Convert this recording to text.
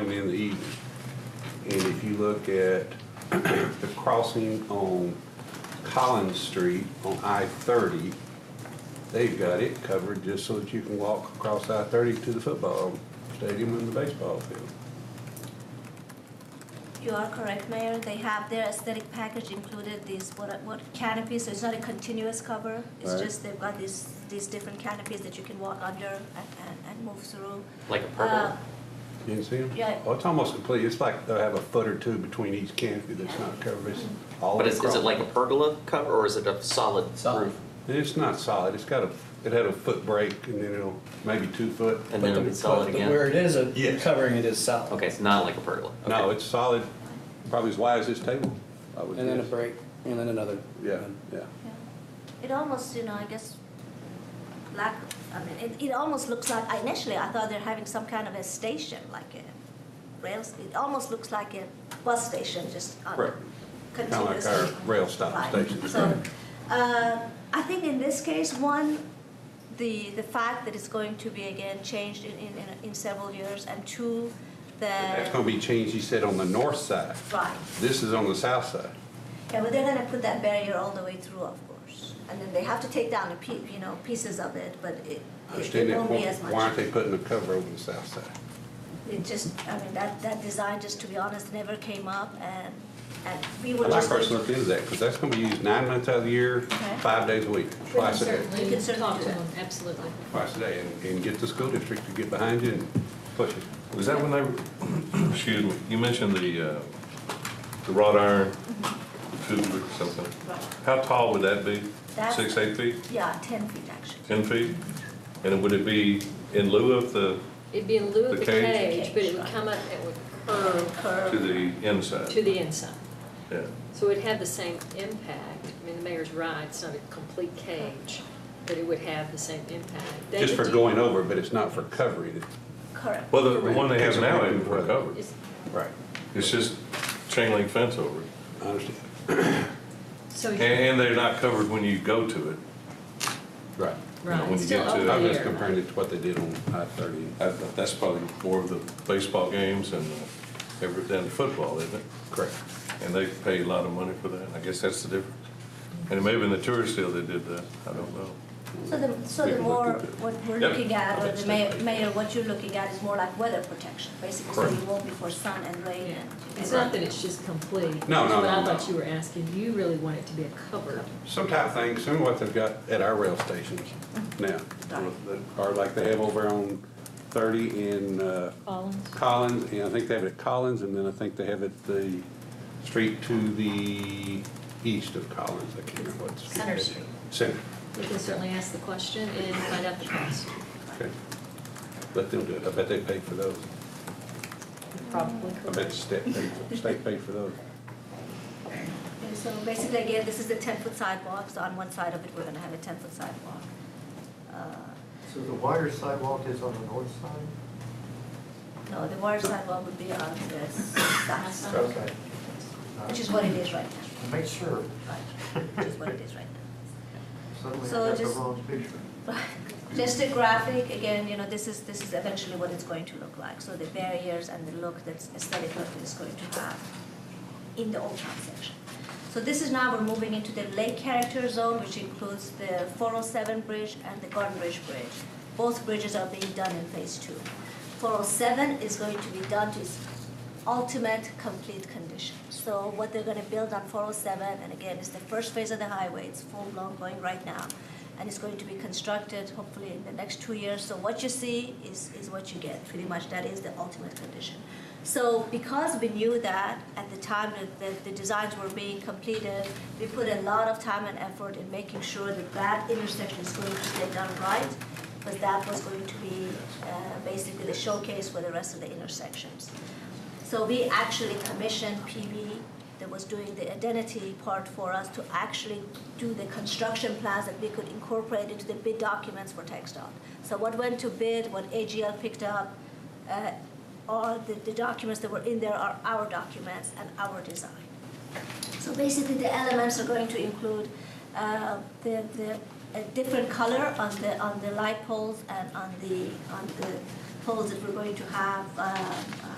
in the evening. And if you look at the crossing on Collins Street on I-30, they've got it covered just so that you can walk across I-30 to the football stadium and the baseball field. You are correct, Mayor. They have their aesthetic package included these, what, what canopy, so it's not a continuous cover. It's Right. just they've got these, these different canopies that you can walk under and, and, and move through. Like a Uh, pergola? You didn't see them? Yeah. Well, it's almost complete. It's like they'll have a foot or two between each canopy that's not covered. It's all But is, is it across. like a pergola cover or is it a solid Solid. roof? It's not solid. It's got a, it had a foot break and then it'll, maybe two foot. And then but it'll the- be solid but But again. where it is, a Yes. covering it is solid. Okay, it's not like a pergola. the- No, Okay. it's solid, Uh, probably as wide as this table. I would And then a guess. break, and then another. Yeah, yeah. yeah. It almost, you know, I guess, like, I mean, it, it almost looks like, I- initially, I thought they're having some kind of a station, like a rails, it almost looks like a bus station, just on Right. Kinda like continuously. our rail stop Right. station. So, uh, I think in this case, one, the, the fact that it's going to be again changed in, in, in- in several years, and two, That's the, gonna be changed, he said, on the north side. right. This is on the south side. Yeah, but they're gonna put that barrier all the way through, of course. And then they have to take down a pe, you know, pieces of it, but it, I it- understand it that. won't be Why as why aren't much. they putting a cover over the south side? It just, I mean, that, that design, just to be honest, never came up and, and we I would like just. first look into that, because that's gonna be used nine months out of the year, Okay. five days a week, We can twice a day. We can certainly certainly talk do to that. them, absolutely. twice a day and, and get the school district to get behind you and push it. Was that when they, excuse me, you mentioned the, uh, the wrought iron tube or something? How tall would that be? That's- Six, eight feet, Yeah, ten feet actually. 10 feet? And would it be in lieu of the, It'd be in lieu of The the cage? cage, but it would come up, it would curve to Curve. the inside? to the inside. Yeah. So it'd have the same impact. I mean, the mayor's right, it's not a complete cage, but it would have the same impact. Just David, for do you- going over, but it's not for covering it. Correct. Well, the the one they have now isn't Right. covered. is- Right. It's just chain link fence over it. I understand. So, And, and they're not covered when you go to it. Right. know, right, when it's you still get to- over I was there. just comparing it to what they did on I thirty. I- That's probably more of the baseball games and uh, every, than football, isn't it? Correct. And they pay a lot of money for that, I guess that's the difference. And maybe in the tourist deal they did that, I don't know. So the, so We the can look more, at that. what we're Yep. looking at, or the Understood. mayor, mayor, what you're looking at is more like weather protection, basically, so Correct. it won't be for sun and rain Yeah. and. It's not that it's just complete. No, no, That's no, what I no. thought you were asking. You really want it to be a covered. Some type of thing, similar to what they've got at our rail stations Mm-hmm. now. Or like they have over on thirty in, uh, Collins? Collins, and I think they have it at Collins, and then I think they have it the street to the east of Collins, I can't remember what. street Center it is. Street. Center, We can certainly ask the question and find out the cost, okay. Let them do it, I bet they paid for those. probably I bet the correct. state paid, for- state paid for those. And so basically, again, this is the ten-foot sidewalk, so on one side of it, we're gonna have a ten-foot sidewalk. Uh, So the wider sidewalk is on the north side? No, the water sidewalk would be on the south side, Okay. which is what it is right now, Make sure. right, which is what it is right now. Suddenly I So got the just- wrong picture. Just a graphic, again, you know, this is, this is eventually what it's going to look like, so the barriers and the look that's aesthetic look that it's going to have in the Old Town section. So this is now, we're moving into the Lake Character Zone, which includes the four oh seven bridge and the Garden Ridge Bridge. Both bridges are being done in phase two. Four oh seven is going to be done to its ultimate complete condition. So what they're gonna build on four oh seven, and again, it's the first phase of the highway, it's full blown going right now. And it's going to be constructed hopefully in the next two years, so what you see is, is what you get, pretty much, that is the ultimate condition. So because we knew that at the time that, that the designs were being completed, we put a lot of time and effort in making sure that that intersection is going to stay done right, because that was going to be, uh, basically the showcase for the rest of the intersections. So we actually commissioned PB that was doing the identity part for us to actually do the construction plans that we could incorporate into the bid documents for TechDOT. So what went to bid, what AGL picked up, uh, all the, the documents that were in there are our documents and our design. So basically, the elements are going to include uh, the, the, a different color on the, on the light poles and on the, on the poles that we're going to have uh, uh,